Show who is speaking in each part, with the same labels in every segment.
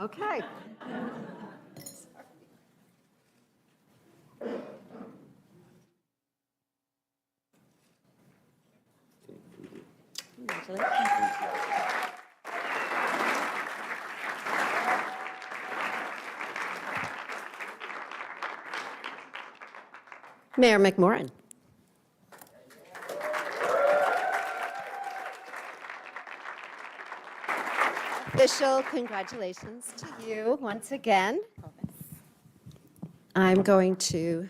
Speaker 1: Okay.
Speaker 2: Congratulations. Mayor McMorrin. Official congratulations to you once again. I'm going to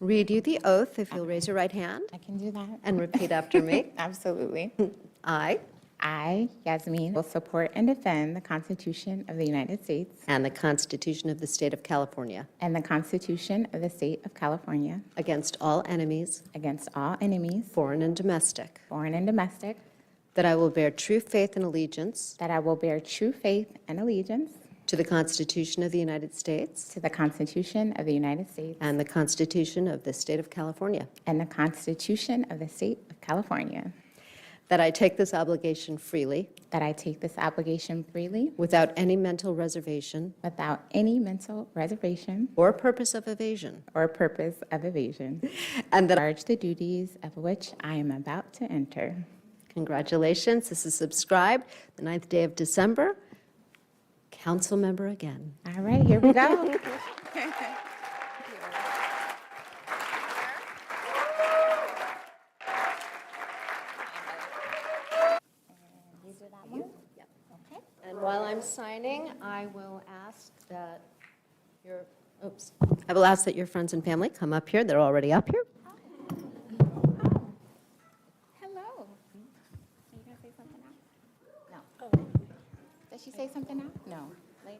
Speaker 2: read you the oath, if you'll raise your right hand
Speaker 3: I can do that. Mm.
Speaker 2: and repeat after me.
Speaker 3: Absolutely.
Speaker 2: I,
Speaker 3: I, Yasmin, will support and defend the Constitution of the United States
Speaker 2: and the Constitution of the State of California,
Speaker 3: and the Constitution of the State of California
Speaker 2: against all enemies,
Speaker 3: against all enemies,
Speaker 2: foreign and domestic,
Speaker 3: foreign and domestic,
Speaker 2: that I will bear true faith and allegiance
Speaker 3: that I will bear true faith and allegiance
Speaker 2: to the Constitution of the United States
Speaker 3: to the Constitution of the United States
Speaker 2: and the Constitution of the State of California,
Speaker 3: and the Constitution of the State of California,
Speaker 2: that I take this obligation freely,
Speaker 3: that I take this obligation freely
Speaker 2: without any mental reservation
Speaker 3: without any mental reservation
Speaker 2: or purpose of evasion,
Speaker 3: or purpose of evasion,
Speaker 2: and that,
Speaker 3: charge the duties of which I am about to enter.
Speaker 2: congratulations, this is subscribed, the ninth day of December, council member again.
Speaker 3: All right, here we go.
Speaker 2: And while I'm signing, I will ask that your, oops, I will ask that your friends and family come up here. They're already up here.
Speaker 3: Hello. Are you gonna say something now? No. Does she say something now? No. Later?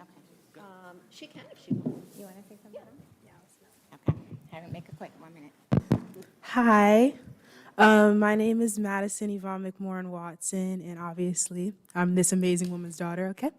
Speaker 3: Okay.
Speaker 2: Um, She can if she wants.
Speaker 3: You wanna say something now? Okay, have it make it quick, one minute.
Speaker 4: Hi, um, my name is Madison Yvonne McMorrin Watson, and obviously, I'm this amazing woman's daughter, okay?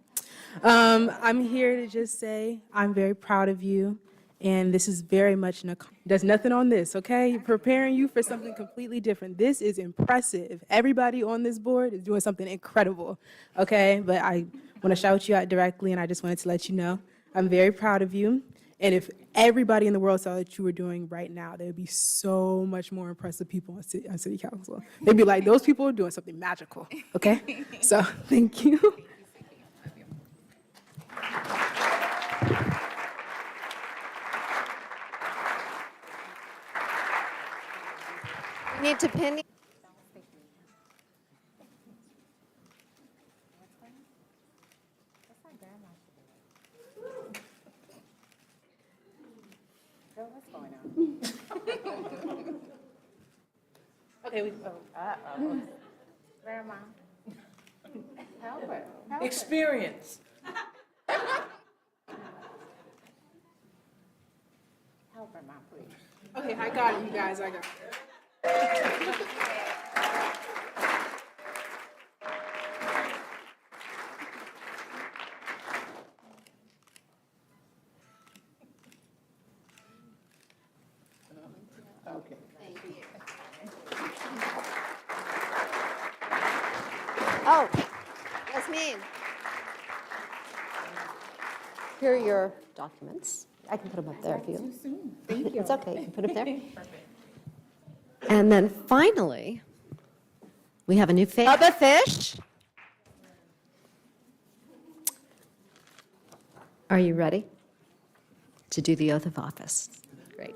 Speaker 4: Um, I'm here to just say I'm very proud of you, and this is very much an accom- There's nothing on this, okay? Preparing you for something completely different. This is impressive. Everybody on this board is doing something incredible, okay? But I want to shout you out directly, and I just wanted to let you know I'm very proud of you. And if everybody in the world saw what you were doing right now, there'd be so much more impressive people on city, on city council. They'd be like, those people are doing something magical, okay? So, thank you.
Speaker 2: We Need to pin,
Speaker 4: Okay, we,
Speaker 3: Grandma. Help her.
Speaker 5: experience.
Speaker 3: Help her, mom, please.
Speaker 4: okay, I got it, you guys, I got it.
Speaker 2: oh, Yasmin. Here are your documents. I can put them up there if you.
Speaker 3: Soon. Thank you.
Speaker 2: It's okay, you can put them there. And then finally, we have a new face. Bubba Fish. Are you ready to do the oath of office? Great.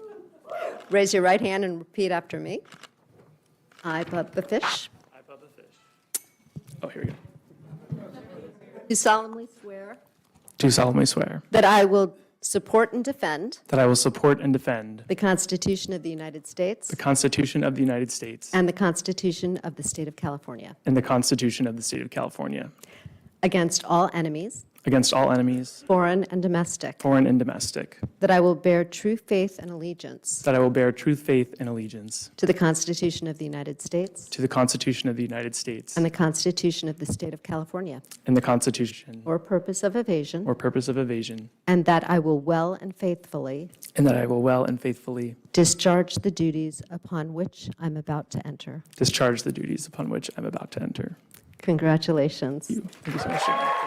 Speaker 2: Raise your right hand and repeat after me. I, Bubba Fish,
Speaker 6: I, Bubba Fish. Oh, here we go.
Speaker 2: do solemnly swear
Speaker 6: Do solemnly swear
Speaker 2: that I will support and defend
Speaker 6: that I will support and defend
Speaker 2: the Constitution of the United States
Speaker 6: the Constitution of the United States
Speaker 2: and the Constitution of the State of California
Speaker 6: and the Constitution of the State of California
Speaker 2: against all enemies,
Speaker 6: against all enemies,
Speaker 2: foreign and domestic,
Speaker 6: foreign and domestic,
Speaker 2: That I will bear true faith and allegiance
Speaker 6: that I will bear true faith and allegiance
Speaker 2: to the Constitution of the United States
Speaker 6: to the Constitution of the United States
Speaker 2: and the Constitution of the State of California
Speaker 6: and the Constitution
Speaker 2: or purpose of evasion,
Speaker 6: or purpose of evasion,
Speaker 2: and that I will well and faithfully
Speaker 6: and that I will well and faithfully
Speaker 2: discharge the duties upon which I'm about to enter.
Speaker 6: discharge the duties upon which I'm about to enter.
Speaker 2: Congratulations.
Speaker 6: Thank you so much. Sharon.